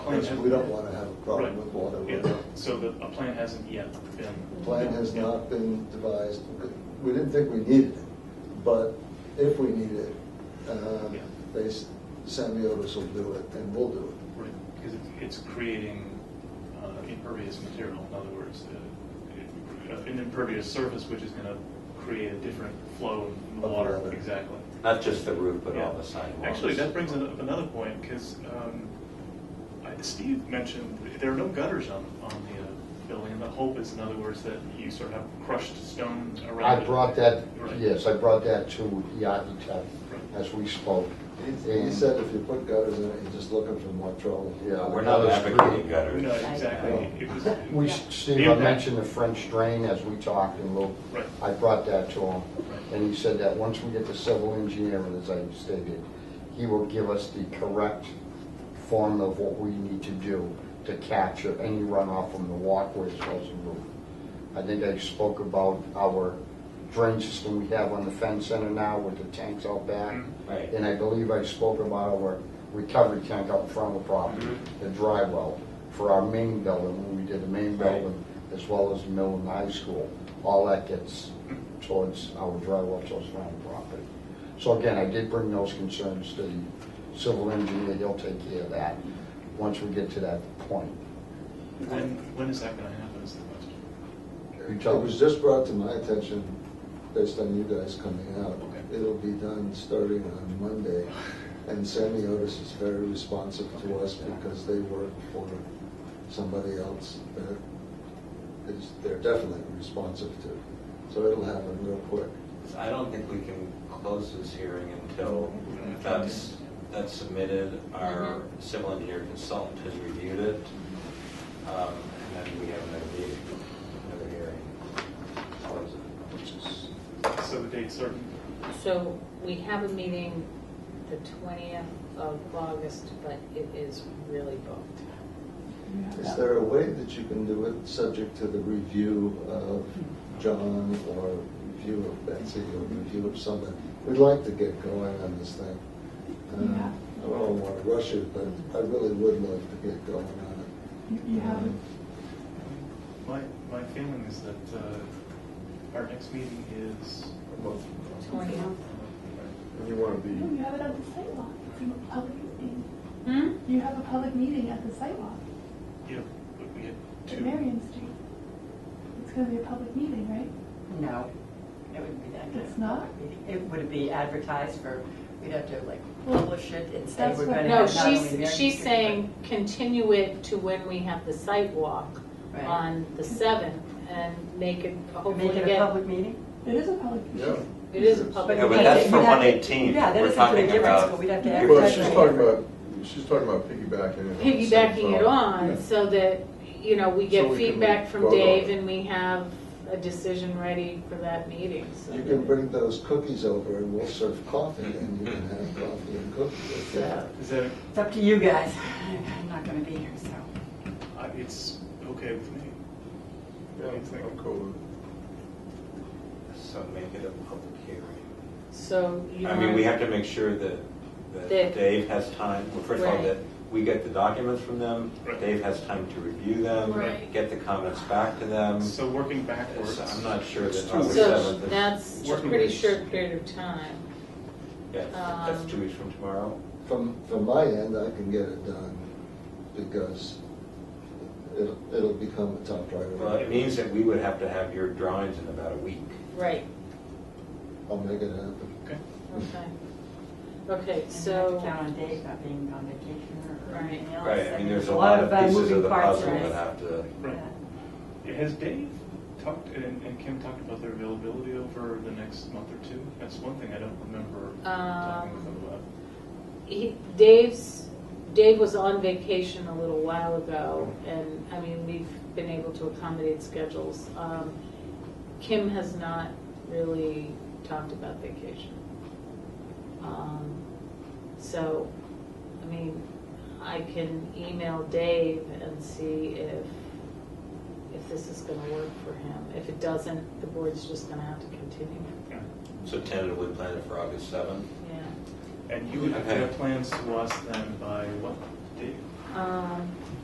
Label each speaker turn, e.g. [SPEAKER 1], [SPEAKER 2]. [SPEAKER 1] Which we don't want to have a problem
[SPEAKER 2] Right.
[SPEAKER 1] with water.
[SPEAKER 2] Yeah,
[SPEAKER 1] We're not-
[SPEAKER 2] so the, a plan hasn't yet been.
[SPEAKER 1] Plan has not been devised, we didn't think we needed it, but if we need it, um,
[SPEAKER 2] Yeah.
[SPEAKER 1] they, s- Samiotis will do it and we'll do it.
[SPEAKER 2] Right, because it's- it's creating uh, impervious material, in other words, uh, it- an impervious surface which is going to create a different flow of
[SPEAKER 1] Of
[SPEAKER 2] water,
[SPEAKER 1] water.
[SPEAKER 2] exactly.
[SPEAKER 3] Not just the roof, but all
[SPEAKER 2] Yeah.
[SPEAKER 3] the sidewalks.
[SPEAKER 2] Actually, that brings up another point, because Steve mentioned, there are no gutters on, on the uh, building, and the hope is, in other words, that you sort of have crushed stone
[SPEAKER 4] I
[SPEAKER 2] around it.
[SPEAKER 4] brought that,
[SPEAKER 2] Right.
[SPEAKER 4] yes, I brought that to the architect as we spoke.
[SPEAKER 1] He- He said if you put gutters in it, you're just looking for more trouble.
[SPEAKER 4] Yeah.
[SPEAKER 3] We're not
[SPEAKER 4] Gutters,
[SPEAKER 3] advocating
[SPEAKER 4] really.
[SPEAKER 3] gutters.
[SPEAKER 2] No,
[SPEAKER 3] uh,
[SPEAKER 2] exactly. It was- it
[SPEAKER 4] We,
[SPEAKER 2] was-
[SPEAKER 4] Steve, I mentioned the French drain as we talked and Lou,
[SPEAKER 2] Right.
[SPEAKER 4] I brought that to him.
[SPEAKER 2] Right.
[SPEAKER 4] And he said that once we get the civil engineer, and as I stated, he will give us the correct form of what we need to do to capture any runoff from the walkways across the roof. I think I spoke about our drain system we have on the fence center now with the tanks out back.
[SPEAKER 2] Mm.
[SPEAKER 3] Right.
[SPEAKER 4] And I believe I spoke about our recovery tank out in front of the property, the dry well, for our main building, when we did the main
[SPEAKER 3] Right.
[SPEAKER 4] building, as well as the middle and high school. All that gets towards our dry well, towards the front of the property. So again, I did bring those concerns to the civil engineer, he'll take care of that, once we get to that point.
[SPEAKER 2] When, when is that going to happen is the question.
[SPEAKER 4] You
[SPEAKER 1] It
[SPEAKER 4] tell-
[SPEAKER 1] was just brought to my attention, based on you guys coming out.
[SPEAKER 2] Okay.
[SPEAKER 1] It'll be done starting on Monday, and Samiotis is very responsive to us because they work for somebody else that is, they're definitely responsive to. So it'll happen real quick.
[SPEAKER 3] I don't think we can close this hearing until that's, that's submitted, our civil engineer consultant has reviewed it, um, and then we have another meeting, another hearing. Close it, which is-
[SPEAKER 2] So the date certain?
[SPEAKER 5] So we have a meeting the twentieth of August, but it is really booked.
[SPEAKER 1] Is there a way that you can do it subject to the review of John or review of Betsy or review of someone? We'd like to get going on this thing. Uh,
[SPEAKER 6] Yeah.
[SPEAKER 1] I don't want to rush it, but I really would like to get going on
[SPEAKER 6] You
[SPEAKER 1] it.
[SPEAKER 6] you haven't,
[SPEAKER 2] My, my feeling is that uh, our next meeting is, uh,
[SPEAKER 5] Twentieth?
[SPEAKER 7] You want to
[SPEAKER 6] no,
[SPEAKER 7] be,
[SPEAKER 6] you have it at the site walk. It's a public meeting.
[SPEAKER 5] Hmm?
[SPEAKER 6] You have a public meeting at the site walk
[SPEAKER 2] yeah, but we had
[SPEAKER 6] at
[SPEAKER 2] two.
[SPEAKER 6] Marion Street. It's gonna be a public meeting, right?
[SPEAKER 8] No, it wouldn't be that. good.
[SPEAKER 6] It's not?
[SPEAKER 8] It would be advertised for, we'd have to like publish it and say
[SPEAKER 6] That's
[SPEAKER 8] we're
[SPEAKER 6] what-
[SPEAKER 8] gonna
[SPEAKER 5] No,
[SPEAKER 8] have not only Marion
[SPEAKER 5] she's, she's
[SPEAKER 8] Street,
[SPEAKER 5] saying continue it to when we have the site walk
[SPEAKER 8] but- Right.
[SPEAKER 5] on the seventh and make it
[SPEAKER 8] Make
[SPEAKER 5] hopefully
[SPEAKER 8] it a
[SPEAKER 5] get,
[SPEAKER 8] public meeting?
[SPEAKER 6] It is a public
[SPEAKER 1] Yeah.
[SPEAKER 6] meeting.
[SPEAKER 5] it is a
[SPEAKER 8] But
[SPEAKER 5] public.
[SPEAKER 3] Yeah, but
[SPEAKER 8] we
[SPEAKER 5] meeting.
[SPEAKER 3] that's
[SPEAKER 8] can't-
[SPEAKER 3] for
[SPEAKER 8] we'd have to-
[SPEAKER 3] 118.
[SPEAKER 8] Yeah, that
[SPEAKER 3] We're
[SPEAKER 8] isn't for the
[SPEAKER 3] talking
[SPEAKER 8] difference,
[SPEAKER 3] about-
[SPEAKER 8] but we'd have to
[SPEAKER 3] Well,
[SPEAKER 7] well,
[SPEAKER 8] advertise.
[SPEAKER 7] she's
[SPEAKER 8] it.
[SPEAKER 7] talking about, she's talking about piggybacking. it on
[SPEAKER 5] Piggybacking it
[SPEAKER 7] some-
[SPEAKER 5] on so that, you know, we
[SPEAKER 7] So
[SPEAKER 5] get
[SPEAKER 7] we can
[SPEAKER 5] feedback
[SPEAKER 7] vote
[SPEAKER 5] from
[SPEAKER 7] on it.
[SPEAKER 5] Dave and we have a decision ready for that meeting, so.
[SPEAKER 1] You can bring those cookies over and we'll serve coffee and you can have coffee and cookies.
[SPEAKER 5] so-
[SPEAKER 2] Is that,
[SPEAKER 8] It's up to you guys. I'm not gonna be here, so.
[SPEAKER 2] I- it's okay with me.
[SPEAKER 7] Yeah, I'm cool with it.
[SPEAKER 3] So make it a public hearing.
[SPEAKER 5] So you
[SPEAKER 3] I mean, we
[SPEAKER 5] want,
[SPEAKER 3] have to make sure that, that
[SPEAKER 5] That-
[SPEAKER 3] Dave has time, well, first of all,
[SPEAKER 5] Right.
[SPEAKER 3] that we get the documents from them,
[SPEAKER 2] Right.
[SPEAKER 3] Dave has time to review them,
[SPEAKER 5] Right.
[SPEAKER 3] get the comments back to them.
[SPEAKER 2] So working backwards.
[SPEAKER 3] So Um, I'm not sure
[SPEAKER 7] It's
[SPEAKER 3] that
[SPEAKER 7] two
[SPEAKER 3] August
[SPEAKER 7] weeks.
[SPEAKER 5] so
[SPEAKER 3] 7th is.
[SPEAKER 5] that's a
[SPEAKER 2] Working
[SPEAKER 5] pretty
[SPEAKER 2] days.
[SPEAKER 5] short period of time.
[SPEAKER 3] Yeah, that's two
[SPEAKER 5] um,
[SPEAKER 3] weeks from tomorrow.
[SPEAKER 1] From, from my end, I can get it done because it'll, it'll become a top
[SPEAKER 3] Well, it
[SPEAKER 1] priority.
[SPEAKER 3] means that we would have to have your drawings in about a week.
[SPEAKER 5] Right,
[SPEAKER 1] I'll make it happen.
[SPEAKER 2] Okay.
[SPEAKER 5] okay. Okay,
[SPEAKER 8] You have to
[SPEAKER 5] so,
[SPEAKER 8] count on Dave not being on vacation or
[SPEAKER 5] Right.
[SPEAKER 8] anything else.
[SPEAKER 3] Right, I mean, there's a lot of
[SPEAKER 8] uh,
[SPEAKER 3] pieces
[SPEAKER 8] moving
[SPEAKER 3] of the
[SPEAKER 8] parts,
[SPEAKER 3] puzzle
[SPEAKER 8] right?
[SPEAKER 3] that have to,
[SPEAKER 2] Right.
[SPEAKER 8] Yeah.
[SPEAKER 2] Has Dave talked, and and Kim talked about their availability over the next month or two? That's one thing I don't remember talking with them about.
[SPEAKER 5] he, Dave's, Dave was on vacation a little while ago, and, I mean, we've been able to accommodate schedules. Um, Kim has not really talked about vacation. Um, So, I mean, I can email Dave and see if, if this is gonna work for him. If it doesn't, the board's just gonna have to continue.
[SPEAKER 2] Yeah.
[SPEAKER 3] so tentatively plan it for August seventh.
[SPEAKER 5] Yeah.
[SPEAKER 2] And you would have to
[SPEAKER 3] Okay.
[SPEAKER 2] have plans to us then by what date?
[SPEAKER 5] Um,